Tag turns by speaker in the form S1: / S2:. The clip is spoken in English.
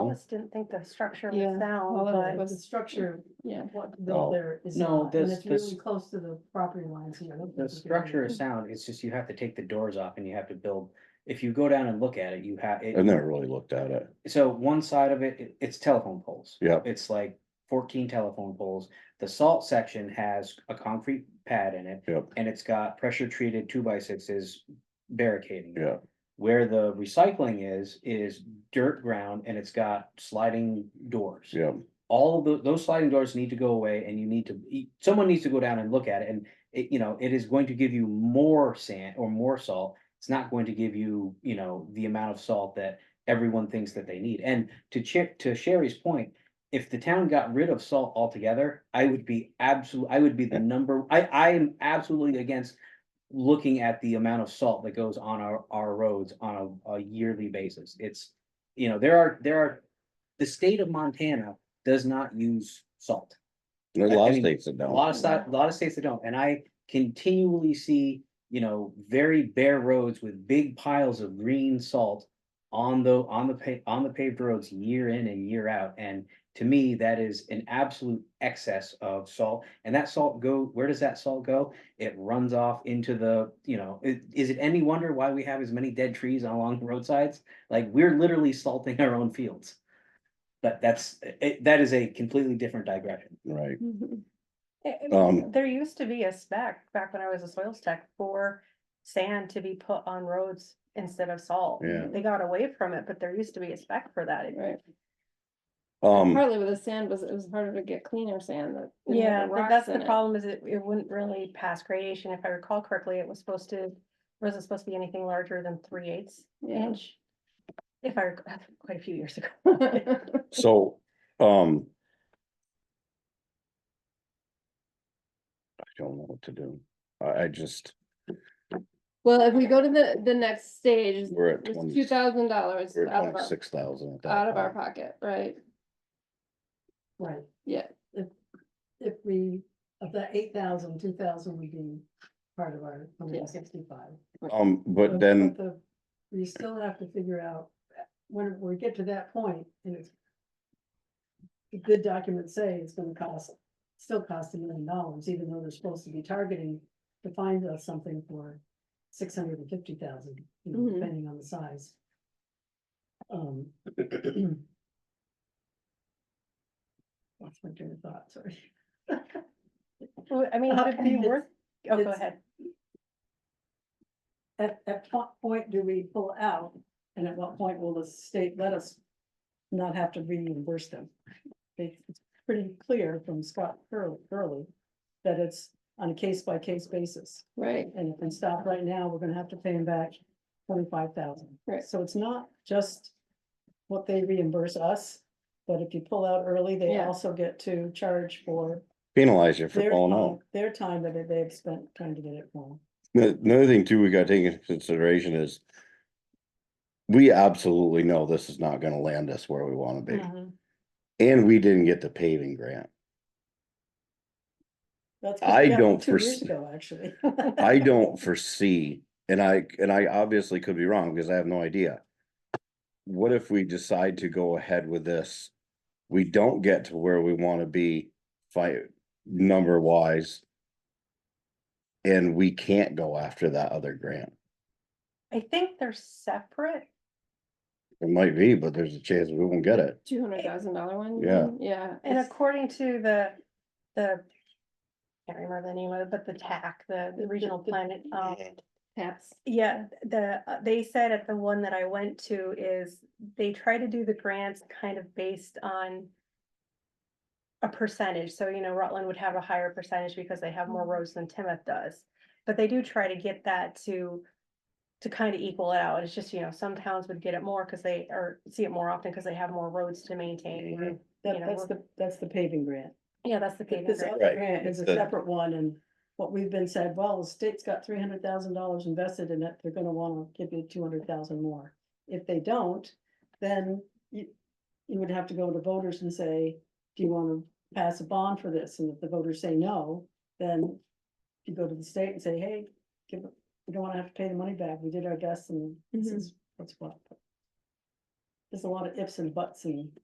S1: just didn't think the structure
S2: Yeah,
S1: was
S2: well, it
S1: sound,
S2: was-
S1: but
S3: But the structure,
S2: Yeah,
S3: of what
S4: No,
S3: built there is.
S4: no,
S3: not, and
S4: this-
S3: it's
S4: this-
S3: Really close to the property lines here. I don't
S4: The
S3: think you can
S4: structure
S3: really-
S4: is sound, it's just you have to take the doors off and you have to build, if you go down and look at it, you have. it-
S5: I've never really looked at it.
S4: So one side of it, it- it's telephone poles.
S5: Yep.
S4: It's like fourteen telephone poles. The salt section has a concrete pad in it.
S5: Yep.
S4: And it's got pressure treated two by sixes barricading. it.
S5: Yeah.
S4: Where the recycling is, is dirt ground and it's got sliding doors.
S5: Yeah,
S4: All of tho- those sliding doors need to go away and you need to, e- someone needs to go down and look at it and it, you know, it is going to give you more sand or more salt. It's not going to give you, you know, the amount of salt that everyone thinks that they need. And to Chip, to Sherry's point, if the town got rid of salt altogether, I would be absolute, I would be the number, I, I am absolutely against looking at the amount of salt that goes on our, our roads on a, a yearly basis. It's, you know, there are, there are, the state of Montana does not use salt.
S5: there are a lot
S4: I
S5: of
S4: mean,
S5: states that don't.
S4: A lot of sti- a lot of states that don't, and I continually see, you know, very bare roads with big piles of green salt. On the, on the pa- on the paved roads year in and year out, and to me, that is an absolute excess of salt. And that salt go, where does that salt go? It runs off into the, you know, i- is it any wonder why we have as many dead trees along the roadsides? Like, we're literally salting our own fields. But that's, it, that is a completely different digression.
S5: Right,
S2: mhm,
S1: It-
S5: Um,
S1: it- there used to be a spec back when I was a soils tech for sand to be put on roads instead of salt.
S5: Yeah.
S1: They got away from it, but there used to be a spec for that.
S2: right. Mm-hmm.
S4: Hmm.
S5: um,
S2: Partly with the sand was, it was harder to get cleaner sand that. didn't
S1: Yeah,
S2: have
S1: but
S2: rocks
S1: that's the
S2: in it.
S1: problem is it, it wouldn't really pass gradation. If I recall correctly, it was supposed to, wasn't supposed to be anything larger than three eighths
S2: Yeah.
S1: inch. If I, rec- quite a few years ago.
S5: so, um. I don't know what to do. I, I just,
S2: Well, if we go to the, the next stage,
S5: we're at
S2: it's
S5: twenty,
S2: two thousand dollars
S5: we're
S2: out
S5: at
S2: of our,
S5: twenty-six thousand.
S2: out of our pocket, right?
S3: Right.
S2: Yeah.
S3: If, if we, of the eight thousand, two thousand would be part of our hundred and sixty-five.
S5: Um,
S3: But-
S5: but then,
S3: but the- You still have to figure out, when we get to that point, and it's. the Good documents say it's gonna cost, still cost a million dollars, even though they're supposed to be targeting to find us something for six hundred and fifty thousand,
S2: Mhm.
S3: depending on the size. Um. Lost my train of thought, sorry.
S1: Well, I mean,
S3: Uh,
S1: it'd be
S3: it's-
S1: worth, oh, go
S3: it's-
S1: ahead.
S3: At, at what point do we pull out? And at what point will the state let us not have to reimburse them? They- It's pretty clear from Scott Curly, Curly, that it's on a case by case basis.
S2: Right,
S3: And if we stop right now, we're gonna have to pay them back twenty-five thousand.
S2: Right.
S3: So it's not just what they reimburse us, but if you pull out early, they
S2: Yeah.
S3: also get to charge for
S5: penalize you for
S3: their,
S5: pulling
S3: time-
S5: out.
S3: their time that they've spent trying to get it wrong.
S5: The- Another thing too, we gotta take into consideration is. We absolutely know this is not gonna land us where we wanna be,
S2: Mm-hmm.
S1: Mhm.
S5: and we didn't get the paving grant.
S3: That's 'cause we
S5: I
S3: got them
S5: don't
S3: Two years
S5: foresee-
S3: ago, actually.
S5: I don't foresee, and I, and I obviously could be wrong because I have no idea. What if we decide to go ahead with this? We don't get to where we wanna be fight number wise. And we can't go after that other grant.
S1: I think they're separate.
S5: It might be, but there's a chance we won't get it.
S2: two hundred thousand dollar one. you
S5: Yeah.
S2: mean? Yeah.
S1: And
S2: it's-
S1: according to the, the, can't remember the name of it, but the TAC, the, the regional
S2: the-
S1: planet, um,
S2: Taps.
S1: yeah, the, uh, they said at the one that I went to is they try to do the grants kind of based on a percentage. So, you know, Rutland would have a higher percentage because they have more roads than Timoth does. But they do try to get that to, to kind of equal it out. It's just, you know, some towns would get it more because they, or see it more often because they have more roads to maintain.
S3: That,
S1: you know,
S3: that's
S1: we're-
S3: the, that's the paving grant.
S1: Yeah, that's the thing.
S3: This other
S5: Right,
S3: grant is a
S5: the-
S3: separate one and what we've been said, well, the state's got three hundred thousand dollars invested in it, they're gonna wanna give you two hundred thousand more. If they don't, then you, you would have to go to voters and say, do you wanna pass a bond for this? And if the voters say no, then you go to the state and say, hey, give, we don't wanna have to pay the money back, we did our best and this
S2: Mhm.
S3: is what's what. There's a lot of ifs and buts and